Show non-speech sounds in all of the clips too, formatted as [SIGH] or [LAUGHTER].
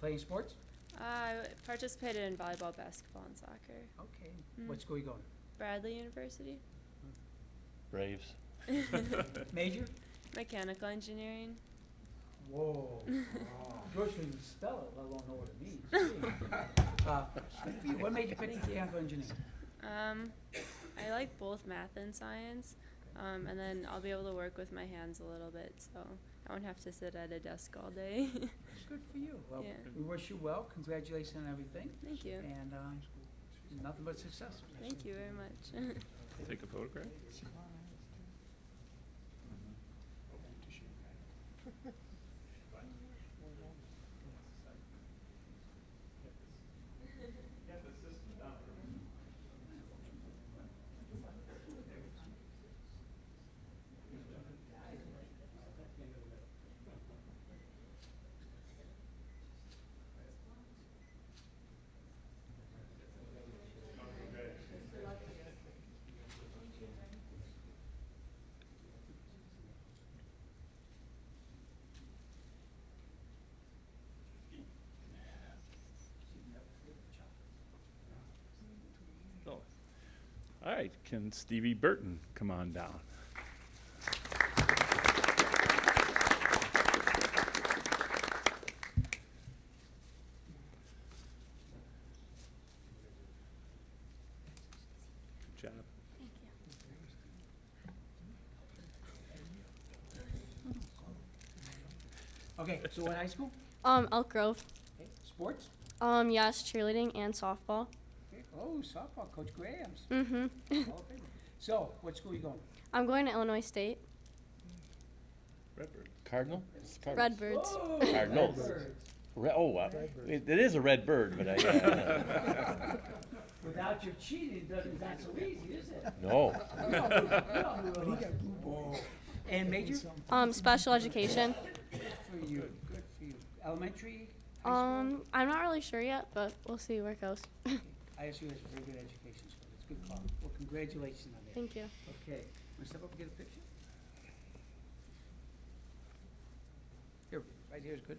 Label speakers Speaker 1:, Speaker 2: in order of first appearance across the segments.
Speaker 1: Playing sports?
Speaker 2: Uh, I participated in volleyball, basketball, and soccer.
Speaker 1: Okay.
Speaker 2: Mm.
Speaker 1: What school you going?
Speaker 2: Bradley University. [LAUGHS]
Speaker 3: Braves.
Speaker 1: Major?
Speaker 2: Mechanical engineering.
Speaker 1: Whoa. George can even spell it, let alone know what it means. Gee. Uh, What made you pick mechanical engineering?
Speaker 2: Um, I like both math and science, um, and then I'll be able to work with my hands a little bit, so I won't have to sit at a desk all day. [LAUGHS]
Speaker 1: Good for you. Well,
Speaker 2: Yeah.
Speaker 1: we wish you well. Congratulations on everything.
Speaker 2: Thank you.
Speaker 1: And uh, nothing but success.
Speaker 2: Thank you very much. [LAUGHS]
Speaker 3: Take a photograph? All right, can Stevie Burton come on down? Good job.
Speaker 1: Okay, so what high school?
Speaker 4: [LAUGHS] Um, Elk Grove.
Speaker 1: Okay, Sports?
Speaker 4: Um, yes, cheerleading and softball.
Speaker 1: Okay. Oh, softball, Coach Graham's.
Speaker 5: [LAUGHS]
Speaker 4: Mm-hmm.
Speaker 1: Hall of Famer. So, what school you going?
Speaker 4: I'm going to Illinois State.
Speaker 3: Redbird.
Speaker 6: Cardinal? It's Cardinal.
Speaker 4: Redbirds.
Speaker 1: Whoa,
Speaker 6: Cardinals.
Speaker 1: Redbirds.
Speaker 6: Re- oh, wow. It, it is a red bird, but I. [LAUGHS] Uh,
Speaker 1: Without your cheating, it doesn't, not so easy, is it?
Speaker 6: no.
Speaker 1: We all knew- we all knew it was- And major?
Speaker 4: Um, special education.
Speaker 1: For you, good for you. Elementary, high school?
Speaker 4: Um, I'm not really sure yet, but we'll see where it goes.
Speaker 1: ISU has a very good education school, it's a good call. Well, congratulations on that.
Speaker 4: Thank you.
Speaker 1: Okay, wanna step up and get a picture? Here, right here is good.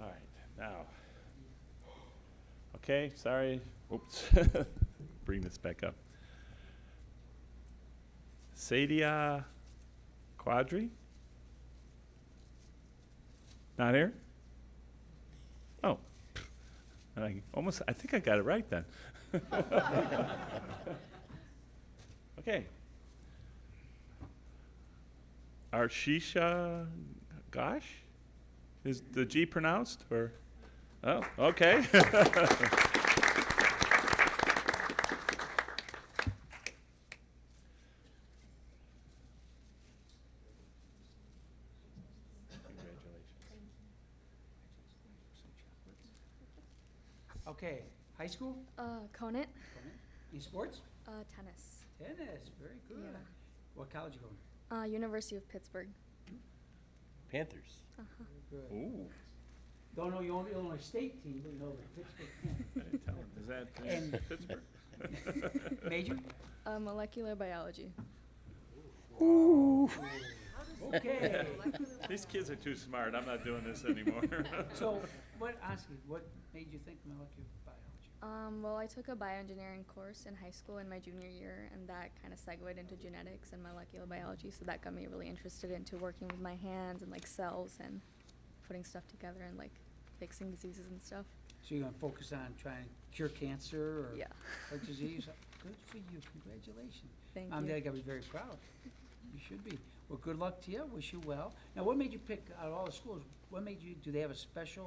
Speaker 3: All right, now. Okay, sorry, oops, [LAUGHS] bring this back up. Sadia Quadri? Not here? Oh, [LAUGHS] and I almost, I think I got it right then. [LAUGHS] Okay. Arshisha Gosh? Is the G pronounced or? Oh, okay.
Speaker 1: Okay, high school,
Speaker 5: Uh, Conant,
Speaker 1: in sports?
Speaker 5: uh, tennis.
Speaker 1: Tennis, very good.
Speaker 5: Yeah.
Speaker 1: What college you going?
Speaker 5: Uh, University of Pittsburgh.
Speaker 6: Panthers.
Speaker 1: Good.
Speaker 3: [LAUGHS] Ooh.
Speaker 1: Don't know your own Illinois State team, but you know the Pittsburgh
Speaker 3: I didn't tell him. Is that uh,
Speaker 1: And-
Speaker 3: Pittsburgh?
Speaker 5: [LAUGHS]
Speaker 1: Panthers. Major?
Speaker 5: Uh, molecular biology.
Speaker 1: [LAUGHS] Okay.
Speaker 3: These kids are too smart. I'm not doing this anymore.
Speaker 1: So, what, honestly, what made you think molecular biology?
Speaker 5: Um, well, I took a bioengineering course in high school in my junior year, and that kind of segued into genetics and molecular biology. So that got me really interested into working with my hands and like cells and putting stuff together and like fixing diseases and stuff.
Speaker 1: So you're gonna focus on trying to cure cancer or
Speaker 5: Yeah.
Speaker 1: heart disease? Good for you, congratulations.
Speaker 5: Thank
Speaker 1: I'm,
Speaker 5: you.
Speaker 1: I gotta be very proud. You should be. Well, good luck to you, wish you well. Now, what made you pick, out of all the schools, what made you, do they have a special